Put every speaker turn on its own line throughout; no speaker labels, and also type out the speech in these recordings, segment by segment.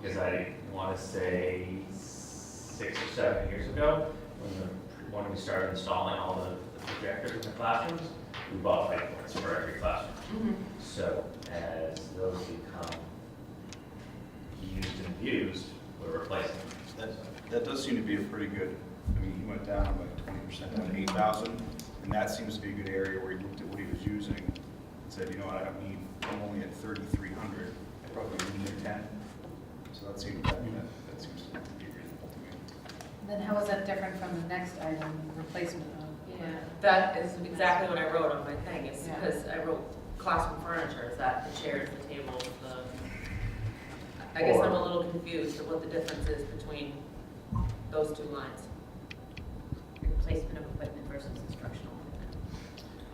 because I want to say six or seven years ago, when the, when we started installing all the the projectors in the classrooms, we bought whiteboards for every classroom. So as those become used and abused, we're replacing them.
That, that does seem to be a pretty good, I mean, he went down by twenty percent, down to eight thousand, and that seems to be a good area where he looked at what he was using and said, you know what, I don't need, I'm only at thirty-three hundred, I probably need ten. So that seems, that, that seems to be reasonable to me.
Then how is that different from the next item, replacement of?
Yeah, that is exactly what I wrote on my thing, is
Yeah.
because I wrote classroom furniture, is that the chairs, the tables, the, I guess I'm a little confused at what the difference is between those two lines.
Replacement of equipment versus instructional equipment.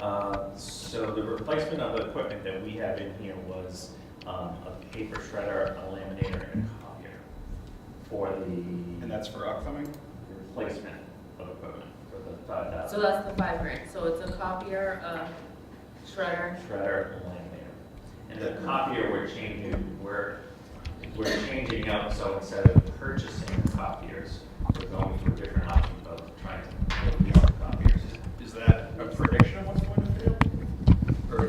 Uh, So the replacement of the equipment that we have in here was um, a paper shredder, a laminator, and a copier for
And
the
that's for upcoming?
replacement of equipment for the five
So
thousand
that's the five grand, so it's a copier, a shredder,
shredder and laminator. And the copier, we're changing, we're, we're changing up, so instead of purchasing copiers, we're going for a different option of trying to build our own copiers.
Is that a prediction of what's going to fail? Or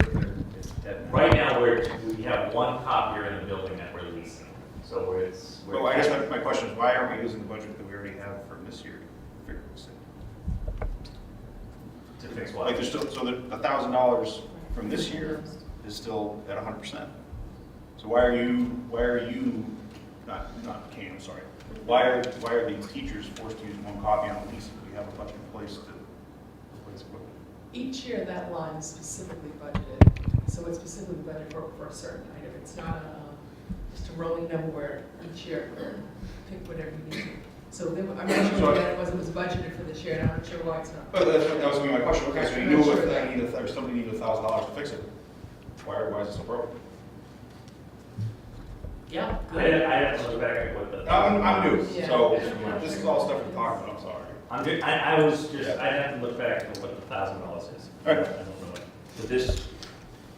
it's dead?
Right now, we're, we have one copier in the building that we're leasing, so we're- it's. we're-
Well, I guess my, my question is, why aren't we using the budget that we already have for this year to figure this out?
To fix
Like,
what?
there's still, so the thousand dollars from this year is still at hundred percent. So why are you, why are you, not, not Kane, I'm sorry, why are, why are the teachers forced to use one copy on the lease if we have a bunch in place to replace equipment?
Each year, that line is specifically budgeted, so it's specifically budgeted for, for a certain item. It's not a, um, just a rolling number where each year, pick whatever you need. to. So then, I'm not sure what that was, it was budgeted for this year, and I'm not sure why it's not.
But that's, that was gonna be my question, okay, so you knew if I need, a- or somebody needed a thousand dollars to fix it, why, why is it so broken?
yeah,
I
good.
didn't, I didn't look back at what the.
I'm, I'm new, so
Yeah.
this is all stuff we're talking about, I'm sorry.
I'm good, I, I was just, I have to look back at what the thousand dollars is. I
Alright.
don't know it. For this,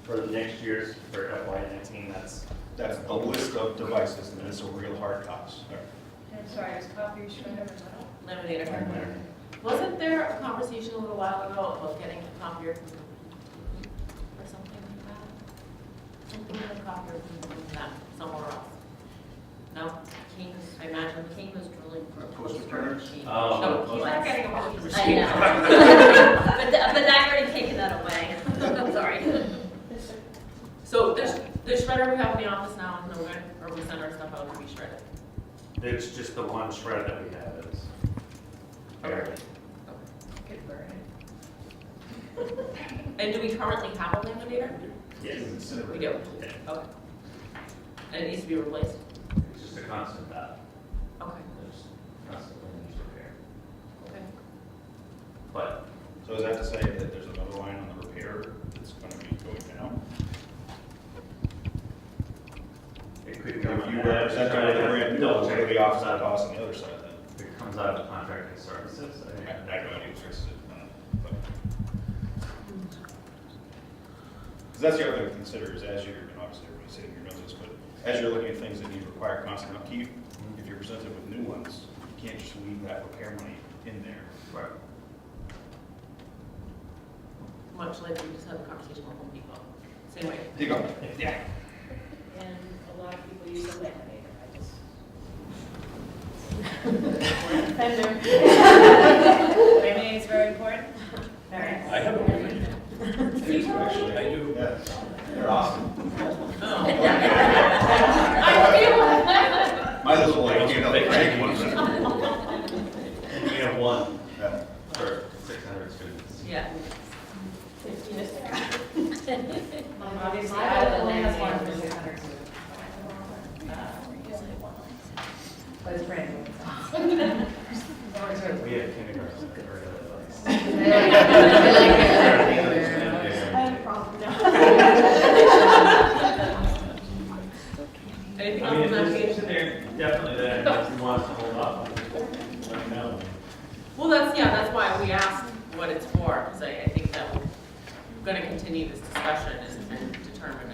for the next year's, for FY nineteen, that's,
That's the list of devices, and it's a real hard cost.
I'm sorry, is copier shredder as well?
Laminator. Wasn't there a conversation a little while ago about getting a copier from, or something like that? Something with a copier from that, somewhere else? No, King, I imagine King was drilling for.
Uh, poster printers?
machine.
Oh,
No,
poster-
he's not getting a poster
I
machine.
know. But, th- but I've already taken that away. I'm sorry.
So there's, the shredder we have in the office now, is no good, or we send our stuff out to be shredded.
it's just the one shred that we have is.
Okay.
Good word.
And do we currently have a laminator?
Yes,
We do,
Yeah.
okay. And it needs to be replaced?
it's just a constant uh, battle,
Okay,
there's constantly needs repair.
okay.
But
So is that to say that there's another line on the repair that's gonna be going down?
it
If
could
you
come. out of-
represent that with a brand new, it's gonna be
Double
offset
check.
cost on the other side then.
If it comes out of the contracted services, I
I
think.
I don't know who fixes it. I don't know, but- Cause that's the other thing to consider is as you're, and obviously everybody's hitting your noses, but as you're looking at things that need to require constant upkeep, if you're presented with new ones, you can't just leave that repair money in there.
Right.
Much like we just had a conversation with Home Depot. Same way.
There you go. Yeah.
And a lot of people use a laminator, I just. Laminating is very important. Very.
I have a one.
Actually, I do. They're awesome. My little like, you know, crank one.
And we have one for six hundred students.
Yeah.
Obviously,
My
I
only has one
laminator.
for six hundred
Uh,
But it's brand new.
We have kindergarten. that are really nice.
Anything
I mean, if
else on that
there's
page?
things there, definitely that if you want to hold up, let me know.
Well, that's, yeah, that's why we asked what it's for, because I, I think that we're gonna continue this discussion and- and determine